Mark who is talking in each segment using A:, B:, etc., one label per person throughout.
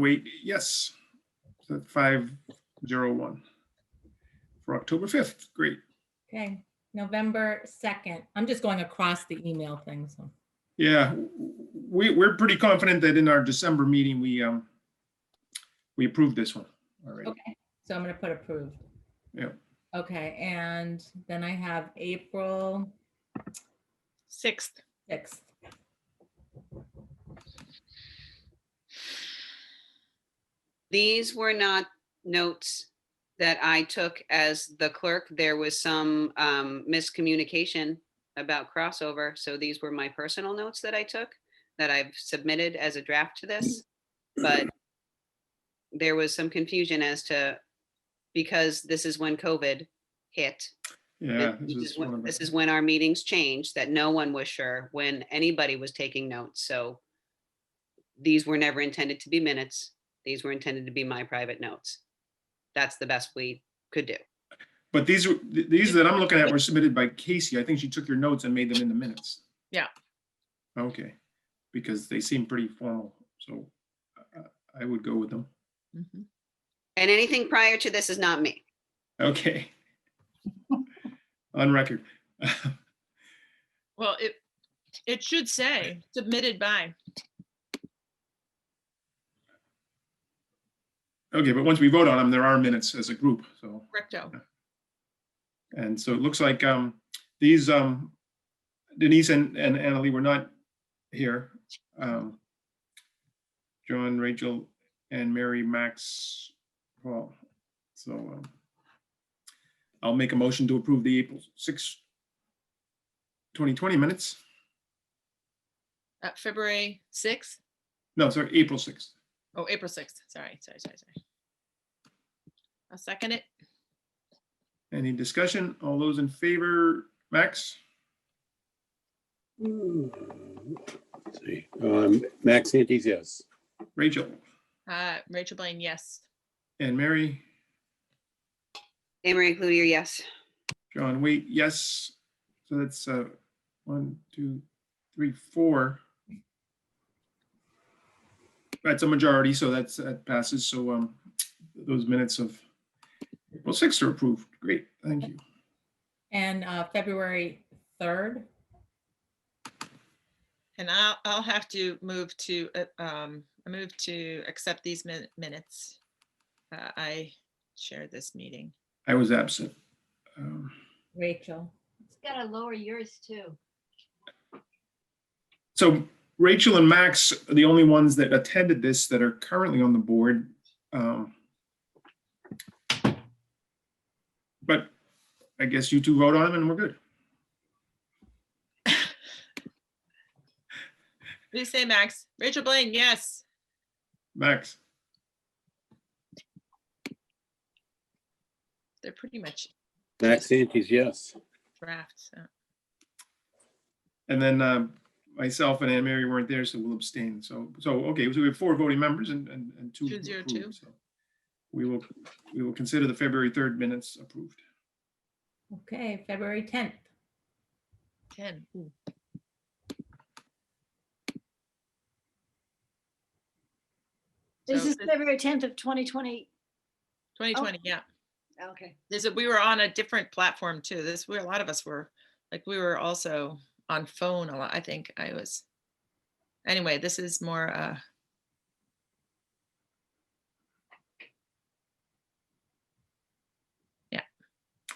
A: Wait, yes, So five zero one for October fifth. Great.
B: Okay, November 2nd. I'm just going across the email thing, so.
A: Yeah, w- w- we, we're pretty confident that in our December meeting, we, um, we approved this one. All right.
B: Okay, so I'm gonna put approved.
A: Yeah.
B: Okay, and then I have April
C: Sixth.
B: sixth.
D: These were not notes that I took as the clerk. There was some um, miscommunication about crossover, so these were my personal notes that I took that I've submitted as a draft to this. But there was some confusion as to, because this is when COVID hit.
A: Yeah. this
D: This is
A: is one
D: when-
A: of
D: this
A: the-
D: is when our meetings changed, that no one was sure when anybody was taking notes, so these were never intended to be minutes. These were intended to be my private notes. That's the best we could do.
A: But these, were- th- these that I'm looking at were submitted by Casey. I think she took your notes and made them in the minutes.
C: Yeah.
A: Okay, because they seem pretty formal, so uh, I would go with them.
D: And anything prior to this is not me.
A: Okay. On record.
C: Well, it, it should say submitted by.
A: Okay, but once we vote on them, there are minutes as a group, so.
C: Correcto.
A: And so it looks like um, these, um, Denise and, and Annalee were not here. Um, John, Rachel, and Mary, Max, Paul. So um, I'll make a motion to approve the April 6, 2020 minutes.
C: Uh, February sixth,
A: No, sorry, April 6th.
C: oh, April sixth, sorry, sorry, sorry, sorry. I'll second it.
A: Any discussion? All those in favor, Max,
E: Hmm. Let's See, um, Max Antes, yes.
A: Rachel,
C: Uh, Rachel Blaine, yes.
A: and Mary?
D: Amory Cloutier, yes.
A: John, wait, yes. So that's uh, one, two, three, four. That's a majority, so that's, that passes. So um, those minutes of April 6th are approved. Great, thank you.
B: And uh, February 3rd,
C: And I'll, I'll have to move to, uh, um, I move to accept these min- minutes. Uh, I shared this meeting.
A: I was absent. Um,
B: Rachel.
F: It's gotta lower yours too.
A: So Rachel and Max are the only ones that attended this that are currently on the board. Um, But I guess you two vote on them and we're good.
C: What do you say, Max? Rachel Blaine, yes.
A: Max,
C: They're pretty much
E: Max Antes, yes.
C: drafts. so.
A: And then um, myself and Anne Mary weren't there, so we'll abstain. So, so, okay, so we have four voting members and, and and two.
C: Two
A: who
C: zero
A: approved,
C: two.
A: so We will, we will consider the February 3rd minutes approved.
B: Okay, February 10th.
C: 10. ooh.
F: This
C: So
F: is
C: it's
F: February tenth of twenty twenty.
C: 2020, yeah.
F: Okay.
C: There's a, we were on a different platform too. This, we, a lot of us were, like, we were also on phone a lot. I think I was. Anyway, this is more, uh,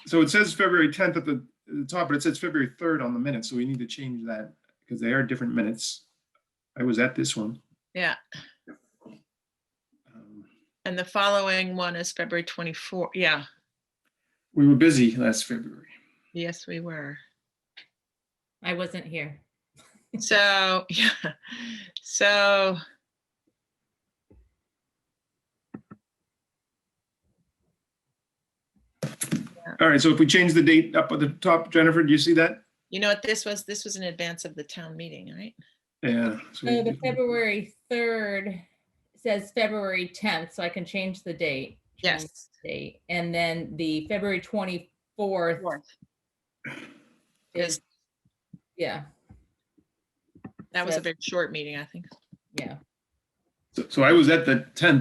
A: So it says February 10th at the, at the top, but it says February 3rd on the minutes, so we need to change that because they are different minutes. I was at this one.
C: yeah.
A: Um,
C: And the following one is February 24. Yeah,
A: We were busy last February.
C: yes, we were.
B: I wasn't here.
C: So, yeah, so.
A: All right, so if we change the date up at the top, Jennifer, do you see that?
C: You know what this was? This was in advance of the town meeting, right?
A: Yeah. so we-
B: So Oh, Uh, the February 3rd says February 10th, so I can change the date. change
C: Yes.
B: the Date. And then the February 24th is,
C: Is,
B: yeah,
C: that was a
B: Says-
C: very short meeting, I think.
B: yeah.
A: So- So I was at the tenth